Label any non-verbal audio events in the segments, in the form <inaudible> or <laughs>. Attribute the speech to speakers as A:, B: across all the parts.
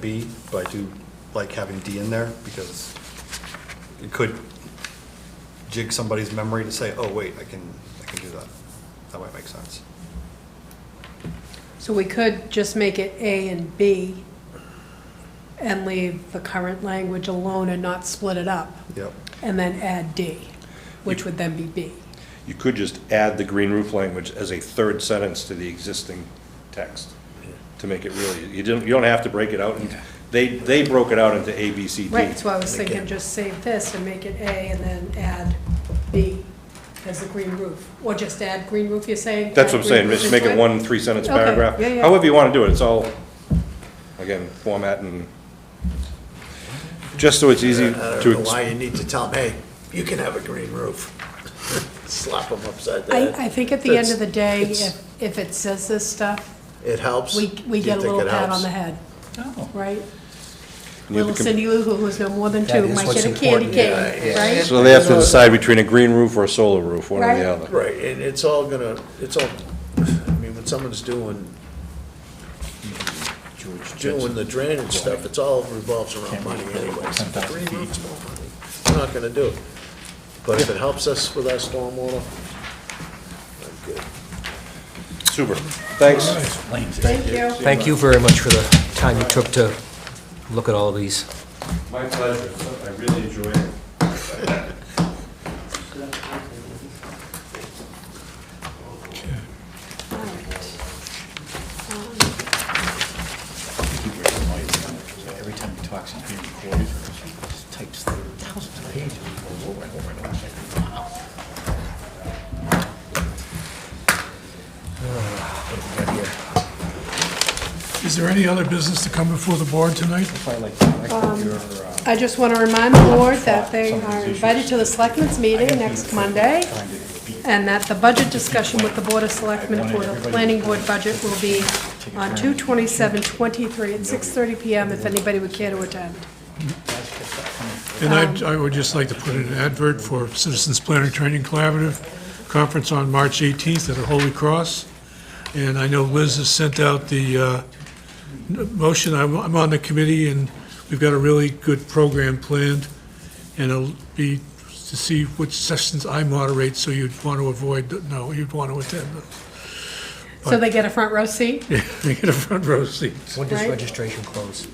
A: B, but I do like having D in there because it could jig somebody's memory to say, oh, wait, I can, I can do that. That might make sense.
B: So we could just make it A and B and leave the current language alone and not split it up,
A: Yep.
B: and then add D, which would then be B.
C: You could just add the green roof language as a third sentence to the existing text to make it really, you don't, you don't have to break it out. and- They, they broke it out into A, B, C, D.
B: Right, so I was thinking just save this and make it A and then add B as the green roof, or just add green roof, you're saying?
C: That's
B: Add
C: what I'm saying,
B: green roof
C: just make
B: into
C: it one three-sentence
B: Okay,
C: paragraph.
B: yeah, yeah.
C: However you want to do it, it's all, again, format and, just so it's easy
D: I don't
C: to,
D: know why
C: ex-
D: you need to tell them, hey, you can have a green roof. <laughs> Slap them upside the
B: I,
D: head.
B: I think at the end of the day,
D: It's-
B: if, if it says this stuff,
D: It helps.
B: we,
D: Do
B: we
D: you
B: get a
D: think
B: little
D: it
B: pat
D: helps?
B: on the head, right?
C: Neither
B: Little
C: com-
B: Cindy Lou Who, who's no more than
E: That
B: two,
E: is
B: might
E: what's
B: get a candy
E: important.
B: cane,
D: Yeah, yeah.
B: right?
C: so they have to decide between a green roof or a solar roof, one or
B: Right.
C: the other.
D: Right, and it's all gonna, it's all, I mean, when someone's doing, doing the drainage stuff, it's all revolves around money anyways. The green roof's more money. We're not gonna do it. But if it helps us with our stormwater, I'm good.
C: Super, thanks.
E: Explains it.
B: Thank you.
E: Thank you very much for the time you took to look at all of these.
C: My pleasure, I really enjoy it.
F: Every time he talks, he's being recorded, he types thousands of pages over and over and over. It's like, wow. What do we got here?
G: Is there any other business to come before the board tonight?
F: Probably like, I like your, uh,
B: I just want to remind the board that they are invited to the selectmen's meeting next Monday,
F: trying to beat
B: and that the budget discussion with the Board of Selectmen for the planning board budget will be on 2/27/23 at 6:30 PM, if anybody would care to attend.
G: And I, I would just like to put in an advert for Citizens Planning Training Collaborative Conference on March 18th at the Holy Cross. And I know Liz has sent out the uh, n- motion. I'm, I'm on the committee, and we've got a really good program planned. And it'll be to see which sessions I moderate, so you'd want to avoid, no, you'd want to attend.
B: So they get a front row seat?
G: They get a front row seat.
E: When does
B: Right.
E: registration close?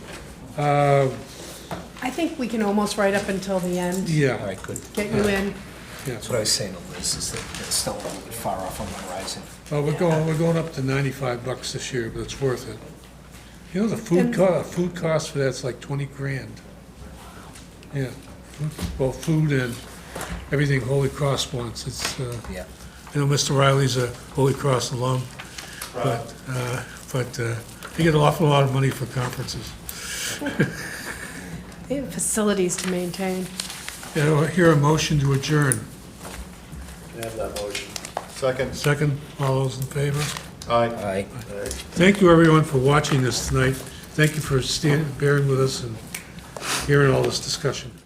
B: I think we can almost right up until the end,
E: All
G: Yeah,
E: right, good.
B: get you in.
G: yeah.
E: That's what I was saying to Liz, is that it's still a little bit far off on the horizon.
G: Well, we're going, we're going up to ninety-five bucks this year, but it's worth it. You know, the food
B: And-
G: co, food cost for that's like twenty grand. Yeah, food- well, food and everything Holy Cross wants, it's, uh,
E: Yeah.
G: you know, Mr. Riley's a Holy Cross alum, but, uh, but, uh, you get an awful lot of money for conferences.
B: They have facilities to maintain.
G: You know, I hear a motion to adjourn.
D: Can I have that motion?
A: Second,
G: Second, all those in favor?
A: aye.
E: All right.
G: Thank you, everyone, for watching this tonight. Thank you for standing, bearing with us and hearing all this discussion.